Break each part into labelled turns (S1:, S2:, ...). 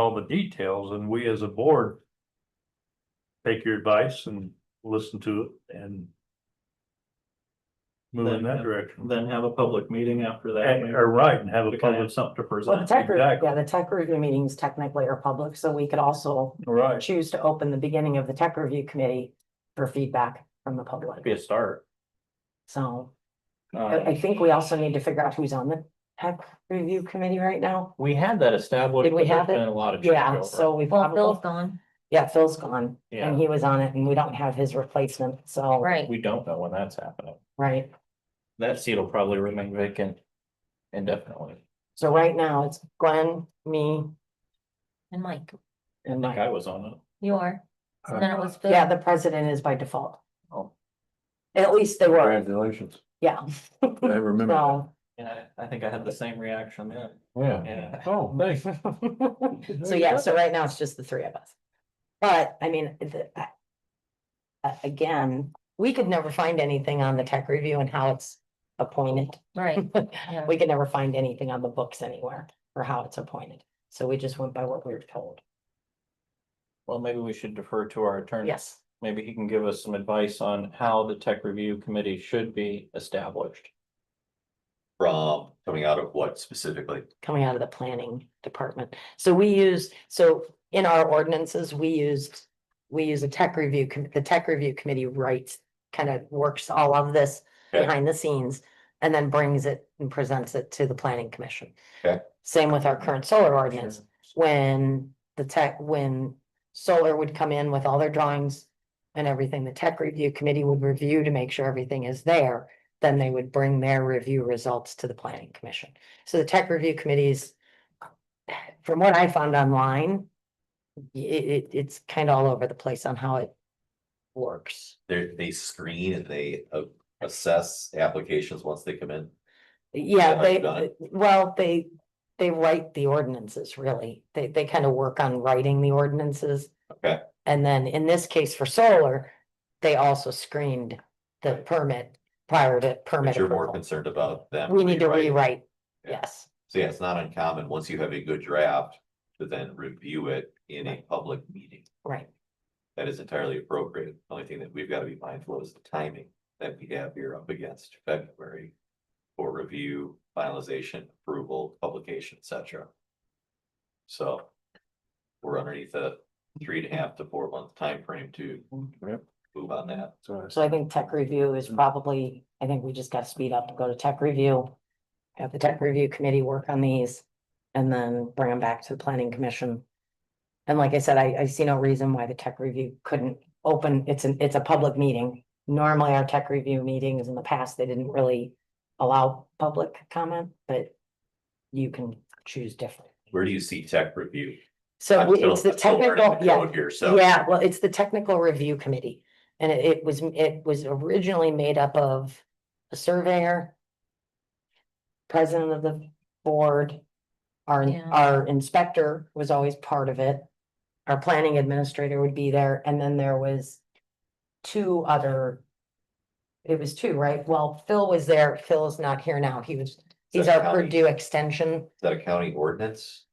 S1: all the details and we as a board. Take your advice and listen to it and. Move in that direction.
S2: then have a public meeting after that.
S1: And,
S2: maybe,
S1: or right, and have a
S2: To kind of
S1: public,
S2: have something to
S3: Well, the
S2: present.
S3: tech, review-
S1: exactly.
S3: yeah, the tech review meetings technically are public, so we could also
S1: right,
S3: choose to open the beginning of the tech review committee for feedback from the public.
S2: Be a start.
S3: So I,
S2: Uh,
S3: I think we also need to figure out who's on the tech review committee right now.
S2: we had that established.
S3: Did we
S2: but there's
S3: have it?
S2: Been a lot of.
S3: Yeah,
S2: changeover.
S3: so we
S4: Well, Phil's
S3: probably,
S4: gone,
S3: yeah, Phil's gone
S2: Yeah.
S3: and he was on it and we don't have his replacement, so,
S4: right,
S2: We don't know when that's happening.
S3: right.
S2: That seat will probably remain vacant indefinitely.
S3: So right now it's Glenn, me
S4: and Mike,
S3: and
S2: I think I
S3: Mike.
S2: was on it.
S4: you are,
S1: Uh,
S4: and then it was Phil.
S3: Yeah, the president is by default.
S2: Oh.
S3: At least they were,
S5: Congratulations.
S3: yeah,
S5: I remember. that.
S3: so.
S2: And I, I think I had the same reaction then.
S5: Yeah.
S2: Yeah.
S5: Oh, thanks.
S3: So yeah, so right now it's just the three of us. But I mean, the, I- a- again, we could never find anything on the tech review and how it's appointed.
S4: Right, yeah,
S3: We could never find anything on the books anywhere for how it's appointed. So we just went by what we were told.
S2: Well, maybe we should defer to our attorney.
S3: Yes,
S2: Maybe he can give us some advice on how the tech review committee should be established.
S6: From coming out of what specifically?
S3: coming out of the planning department. So we use, so in our ordinances, we used, we use a tech review, com- the tech review committee writes, kind of works all of this
S6: Okay.
S3: behind the scenes and then brings it and presents it to the planning commission.
S6: Okay.
S3: Same with our current solar ordinance, when the tech, when solar would come in with all their drawings and everything, the tech review committee would review to make sure everything is there. Then they would bring their review results to the planning commission. So the tech review committees, from what I found online, i- it, it's kind of all over the place on how it works.
S6: They, they screen and they uh, assess applications once they come in.
S3: Yeah,
S6: Yeah,
S3: they,
S6: done
S3: th- well, they, they write the ordinances, really. They, they kind of work on writing the ordinances.
S6: Okay.
S3: And then in this case for solar, they also screened the permit prior to
S6: But
S3: permit
S6: you're more
S3: approval.
S6: concerned about them.
S3: We need to
S6: rewriting.
S3: rewrite,
S6: Yeah.
S3: yes,
S6: So yeah, it's not uncommon, once you have a good draft, to then review it in a public meeting.
S3: right,
S6: That is entirely appropriate. The Only thing that we've got to be mindful of is the timing that we have here up against February. For review, finalization, approval, publication, et cetera. So. We're underneath a three and a half to four month time frame to
S5: Yep.
S6: move on that.
S5: So
S3: so I think tech review is probably, I think we just got to speed up, go to tech review. Have the tech review committee work on these and then bring them back to the planning commission. And like I said, I, I see no reason why the tech review couldn't open, it's an, it's a public meeting. Normally, our tech review meetings in the past, they didn't really allow public comment, but you can choose different.
S6: Where do you see tech review?
S3: So
S6: I'm
S3: we-
S6: still-
S3: it's the
S6: I'm still learning
S3: technical,
S6: the
S3: yeah,
S6: code Here, so.
S3: yeah, well, it's the technical review committee. And it- it was, it was originally made up of a surveyor. President of the board. Our,
S4: Yeah.
S3: our inspector was always part of it. Our planning administrator would be there, and then there was. Two other. It was two, right? Well, Phil was there. Phil is not here now. He was,
S6: Is
S3: he's
S6: that a
S3: our
S6: county-
S3: Purdue extension.
S6: Is that a county ordinance?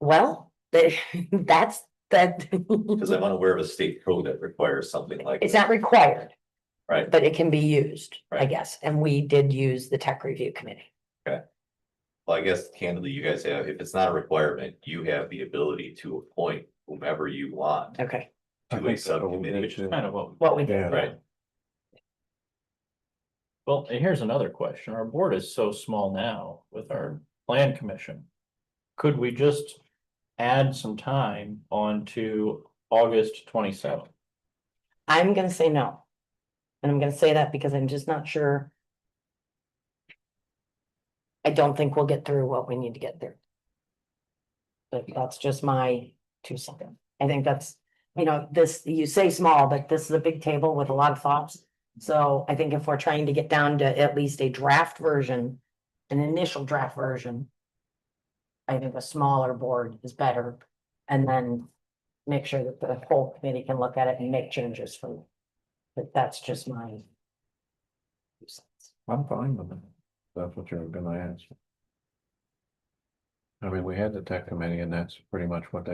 S3: Well, they- that's, that.
S6: Because I'm unaware of a state code that requires something like.
S3: It's not required.
S6: Right.
S3: But it can be used, I
S6: Right.
S3: guess, and we did use the tech review committee.
S6: Well, I guess candidly, you guys have, if it's not a requirement, you have the ability to appoint whomever you want
S3: Okay.
S5: I
S6: to a
S5: think so.
S6: subcommittee.
S2: Kind of what.
S3: What we
S5: Yeah.
S3: did.
S6: Right.
S2: Well, and here's another question. Our board is so small now with our plan commission. Could we just add some time onto August twenty seventh?
S3: I'm gonna say no. And I'm gonna say that because I'm just not sure. I don't think we'll get through what we need to get through. But that's just my two cents. I think that's, you know, this, you say small, but this is a big table with a lot of thoughts. So I think if we're trying to get down to at least a draft version, an initial draft version. I think a smaller board is better and then make sure that the whole committee can look at it and make changes from. it. But that's just my. two cents.
S5: I'm fine with it. That's what you're gonna ask. I mean, we had the tech committee and that's pretty much what they